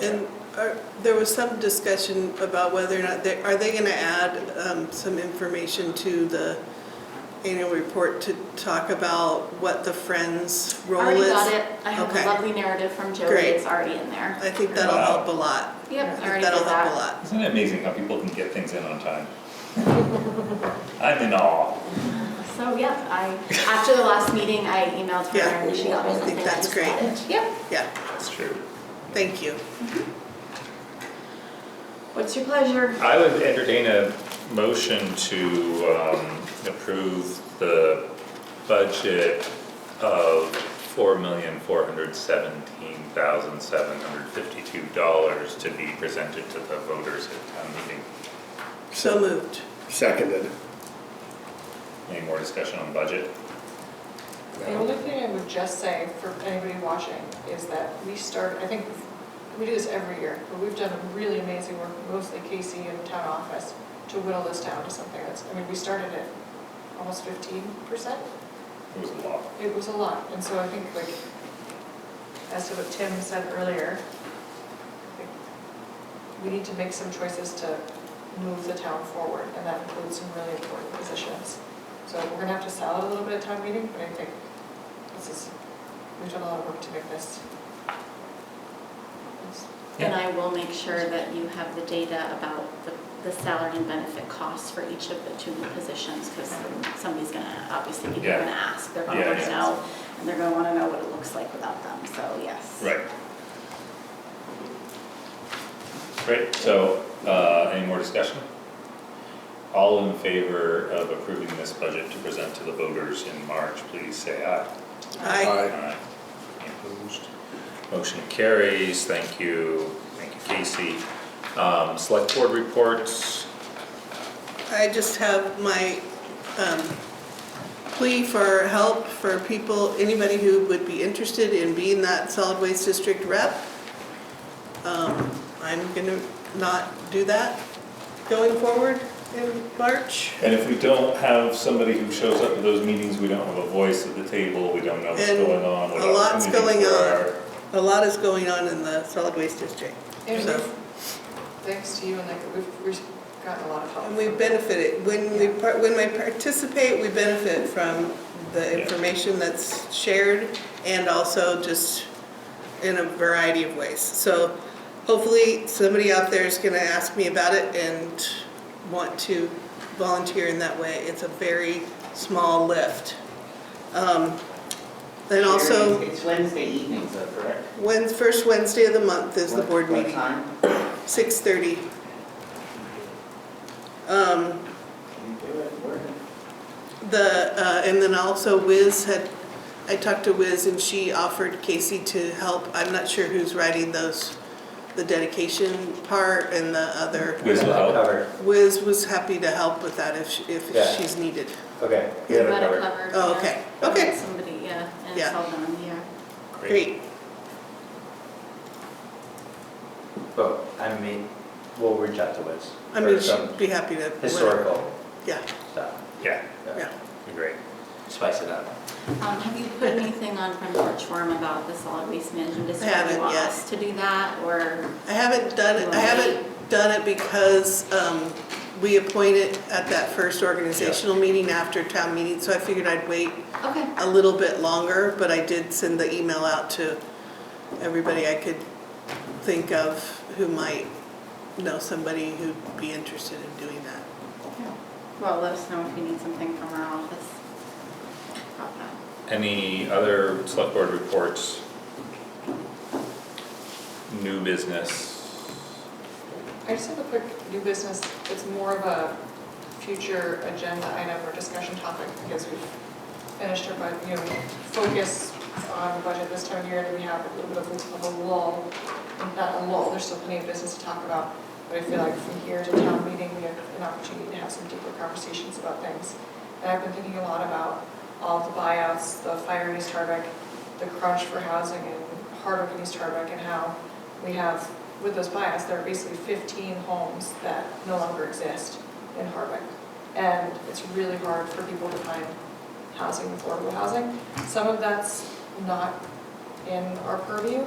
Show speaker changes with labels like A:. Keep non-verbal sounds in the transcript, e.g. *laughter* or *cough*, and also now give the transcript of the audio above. A: And are- there was some discussion about whether or not, they- are they going to add um, some information to the annual report to talk about what the Friends role is?
B: Already got it. I have
A: Okay.
B: a lovely narrative from Joey.
A: Great.
B: It's already in there.
A: I think that'll
C: Wow.
A: help a lot. I
B: Yep, I
A: think
B: already did
A: that'll help a
B: that.
A: lot.
C: Isn't it amazing how people can get things in on time? *laughs* I'm in awe.
B: So, yep, I, after the last meeting, I emailed her
A: Yeah.
B: and she got me
C: I think
B: something.
A: that's
B: just got
A: great.
B: it. Yep.
A: Yeah,
C: That's true.
A: thank you.
B: What's your pleasure?
C: I would entertain a motion to um, approve the budget of four million, four hundred seventeen thousand, seven hundred fifty-two dollars to be presented to the voters at town meeting.
A: So moved.
D: Seconded.
C: Any more discussion on budget?
E: The only thing I would just say for anybody watching is that we start, I think, we do this every year, but we've done really amazing work, mostly Casey and town office, to whittle this down to something that's, I mean, we started at almost fifteen percent.
C: It was a lot.
E: It was a lot, and so I think like, as to what Tim said earlier, I think we need to make some choices to move the town forward, and that includes some really important positions. So we're gonna have to sell it a little bit at town meeting, but I think this is, we've done a lot of work to make this. this-
C: Yeah.
B: And I will make sure that you have the data about the, the salary and benefit costs for each of the two new positions, because somebody's gonna, obviously, people are
C: Yeah.
B: gonna ask, they're gonna
C: Yeah,
B: wanna
C: yeah.
B: know, and they're gonna wanna know what it looks like without them, so yes.
C: Right. Great, so, uh, any more discussion? All in favor of approving this budget to present to the voters in March, please say aye.
A: I,
C: Aye. Any Opposed? Motion carries, thank you, thank you Casey. Um, select board reports,
A: I just have my um, plea for help for people, anybody who would be interested in being that solid waste district rep. Um, I'm gonna not do that going forward in March.
C: and if we don't have somebody who shows up to those meetings, we don't have a voice at the table, we don't know what's
A: And
C: going on. what
A: a lot's
C: opportunities
A: going
C: there
A: on.
C: are.
A: A lot is going on in the solid waste district.
E: And
A: So-
E: we've- thanks to you, and like, we've, we've gotten a lot of help.
A: And we benefited, when we, par- when we participate, we benefit from the
C: Yeah.
A: information that's shared and also just in a variety of ways. So hopefully, somebody out there is gonna ask me about it and want to volunteer in that way. It's a very small lift. Um, Then also,
F: It's Wednesday evenings, though, correct?
A: when, first Wednesday of the month is the
F: What-
A: board meeting.
F: What time?
A: 6:30. Um,
F: You do it, we're in.
A: The, uh, and then also Wiz had, I talked to Wiz and she offered Casey to help. I'm not sure who's writing those, the dedication part and the other.
C: Wiz will help.
G: Covered,
A: Wiz was happy to help with that if, she- if
G: Yeah.
A: she's needed.
G: okay.
B: We got it covered.
A: Oh,
B: yeah.
A: okay. Okay.
B: Somebody, yeah, and it's
A: Yeah.
B: all done, yeah.
A: Great.
G: But, I mean, we'll reach out to Wiz.
A: I mean,
G: for some
A: she'd be happy to.
G: Historical
A: Yeah,
G: stuff,
C: Yeah,
A: yeah.
C: great.
G: spice it up.
B: Um, have you put anything on from Porch Forum about the solid waste management district?
A: haven't
B: Do you want
A: yet.
B: us to do that, or?
A: I haven't done it, I haven't done it because um, we appointed at that first organizational meeting after town meeting, so I figured I'd wait
B: Okay,
A: a little bit longer, but I did send the email out to everybody I could think of who might know somebody who'd be interested in doing that.
B: well, let us know if you need something from our office. about that.
C: Any other select board reports? New business?
E: I just have a quick new business, it's more of a future agenda item or discussion topic, because we've finished our, bud- you know, focus on the budget this time of year, and we have a little bit of a- of a lull, not a lull, there's still plenty of business to talk about, but I feel like from here to town meeting, we have an opportunity to have some deeper conversations about things. And I've been thinking a lot about all the buyouts, the fire in East Harvick, the crunch for housing in Hardwick and East Harvick, and how we have, with those buyouts, there are basically 15 homes that no longer exist in Harvick. And it's really hard for people to find housing, affordable housing. Some of that's not in our purview,